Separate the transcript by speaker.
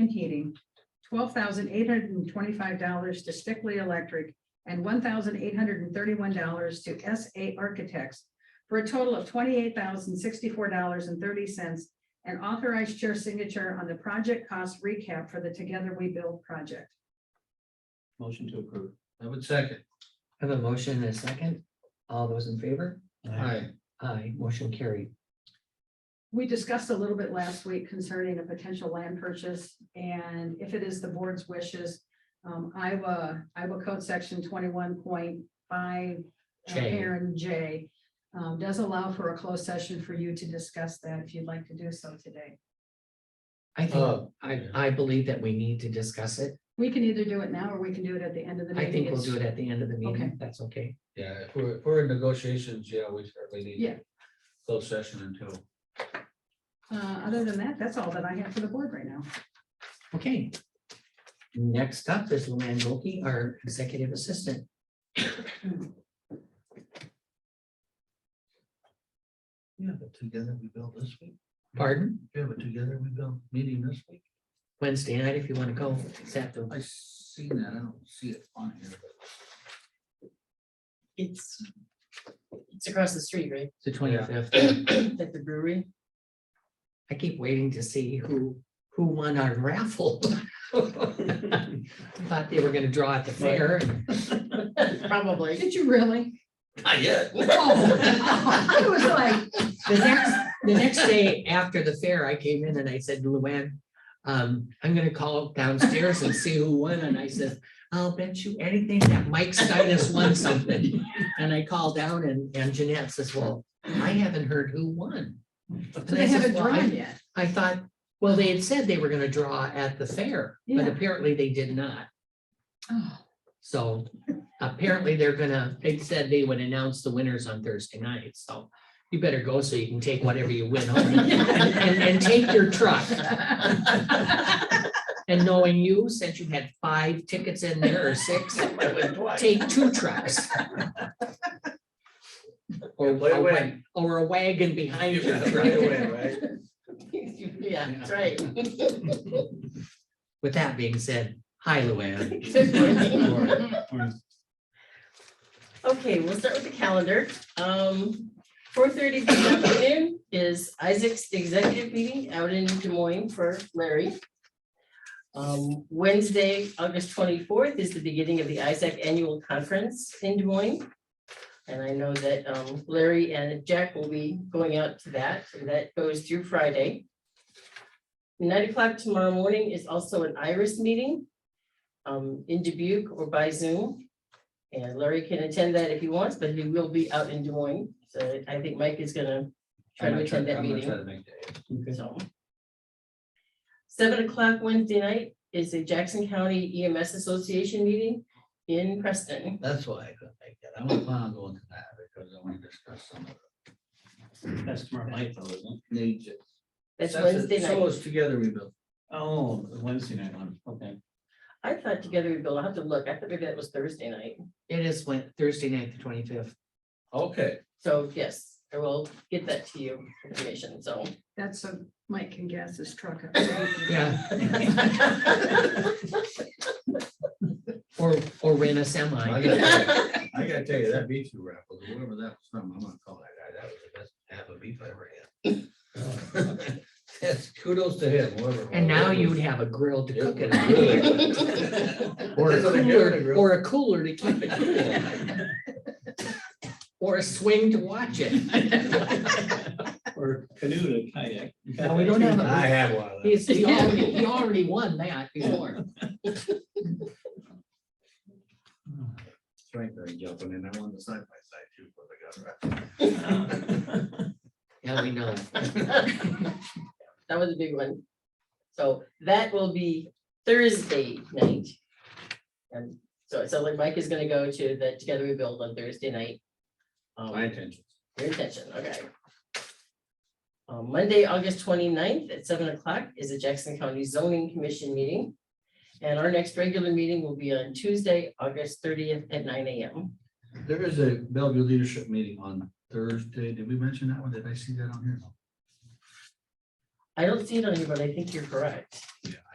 Speaker 1: and heating, twelve thousand eight hundred and twenty-five dollars to Stickley Electric, and one thousand eight hundred and thirty-one dollars to S A Architects for a total of twenty-eight thousand sixty-four dollars and thirty cents and authorized chair signature on the project cost recap for the Together We Build project.
Speaker 2: Motion to approve.
Speaker 3: I would second.
Speaker 4: I have a motion and a second. All those in favor?
Speaker 3: Aye.
Speaker 4: Aye, motion carried.
Speaker 1: We discussed a little bit last week concerning a potential land purchase, and if it is the board's wishes, um, Iowa, Iowa Code Section twenty-one point five,
Speaker 4: J.
Speaker 1: Aaron J, um, does allow for a closed session for you to discuss that if you'd like to do so today.
Speaker 4: I think,
Speaker 3: Oh.
Speaker 4: I, I believe that we need to discuss it.
Speaker 1: We can either do it now or we can do it at the end of the meeting.
Speaker 4: I think we'll
Speaker 1: It's-
Speaker 4: do it at the end of the meeting.
Speaker 1: Okay.
Speaker 4: if That's okay.
Speaker 3: Yeah, if we're, if we're in negotiations, yeah, we certainly need.
Speaker 1: Yeah.
Speaker 3: Closed session until.
Speaker 1: Uh, other than that, that's all that I have for the board right now.
Speaker 4: Okay. Next up is Luann Volkey, our executive assistant.
Speaker 3: Yeah, but together we build this week.
Speaker 4: Pardon?
Speaker 3: Yeah, but together we build meeting this week.
Speaker 4: Wednesday night, if you want to go. Is that the-
Speaker 3: I seen that. I don't see it on here.
Speaker 5: It's, it's across the street, right?
Speaker 4: the twenty-fifth?
Speaker 5: At the brewery.
Speaker 4: I keep waiting to see who, who won our raffle. Thought they were gonna draw at the fair. and-
Speaker 5: Probably.
Speaker 1: Did you really?
Speaker 3: Not yet.
Speaker 1: I was like,
Speaker 4: The next, the next day after the fair, I came in and I said, Luann, um, I'm gonna call downstairs and see who won. And I said, I'll bet you anything that Mike Stinas won something. And I called down and, and Jeanette says, well, I haven't heard who won. And I
Speaker 1: they haven't
Speaker 4: said, "Well,
Speaker 1: drawn
Speaker 4: I
Speaker 1: yet.
Speaker 4: I thought, well, they had said they were gonna draw at the fair, but
Speaker 1: Yeah.
Speaker 4: apparently they did not.
Speaker 1: Oh.
Speaker 4: So apparently they're gonna, they said they would announce the winners on Thursday night, so you better go so you can take whatever you win home and, and- and take your truck. And knowing you, since you had five tickets in there or six, take two trucks. Or
Speaker 3: Play
Speaker 4: a wa-
Speaker 3: away.
Speaker 4: or a wagon behind your
Speaker 3: Right
Speaker 4: truck.
Speaker 3: away, right?
Speaker 5: Yeah, that's right.
Speaker 4: With that being said, hi Luann.
Speaker 5: Okay, we'll start with the calendar. Um, four thirty this afternoon is Isaac's executive meeting out in Des Moines for Larry. Um, Wednesday, August twenty-fourth is the beginning of the Isaac Annual Conference in Des Moines. And I know that um, Larry and Jack will be going out to that, and that goes through Friday. Nine o'clock tomorrow morning is also an Iris meeting um, in Dubuque or by Zoom. And Larry can attend that if he wants, but he will be out in Des Moines, so I think Mike is gonna try
Speaker 3: I'm
Speaker 5: to
Speaker 3: gonna try
Speaker 5: attend that
Speaker 3: I'm gonna
Speaker 5: meeting.
Speaker 3: try to make that.
Speaker 5: So. Seven o'clock Wednesday night is the Jackson County EMS Association meeting in Preston.
Speaker 3: That's why I couldn't make that. I don't plan on going to that because I want to discuss some of
Speaker 2: That's tomorrow night though, isn't it?
Speaker 3: the needs.
Speaker 5: That's
Speaker 3: it.
Speaker 5: Wednesday
Speaker 3: So
Speaker 5: night.
Speaker 3: it's together we build.
Speaker 2: Oh, the Wednesday night one, okay.
Speaker 5: I thought together we build, I'll have to look. I thought maybe that was Thursday night.
Speaker 4: It is Wed- Thursday night, the twenty-fifth.
Speaker 3: Okay.
Speaker 5: So yes, I will get that to you information, so.
Speaker 1: That's so Mike can gas his truck up. so he can-
Speaker 4: Yeah, or, or rent a semi.
Speaker 3: I gotta tell you- I gotta tell you, that beef you raffle, whoever that was from, I'm gonna call that guy, that was the best half of beef I ever had. That's kudos to him, whoever.
Speaker 4: And now you would have a grill to cook it on,
Speaker 3: have.
Speaker 4: or a cooler, or a cooler to keep it cool, or a swing to watch it.
Speaker 2: Or canoe to kayak.
Speaker 4: No, we don't have a-
Speaker 3: I have one of those.
Speaker 4: He's, he already, he already won that before.
Speaker 3: Strength thing jumping in, I won the side by side too for the
Speaker 4: Yeah, we know.
Speaker 5: That was a big one. So that will be Thursday night. And so it sounds like Mike is gonna go to the Together We Build on Thursday night.
Speaker 3: gun. Oh,
Speaker 5: Um,
Speaker 3: My attention.
Speaker 5: Your intention, okay. Uh, Monday, August 29th at seven o'clock is the Jackson County Zoning Commission meeting. And our next regular meeting will be on Tuesday, August thirtieth at nine AM.
Speaker 3: There is a Bellevue leadership meeting on Thursday. Did we mention that one? Did I see that on here?
Speaker 5: I don't see it on here, but I think you're correct.
Speaker 3: Yeah,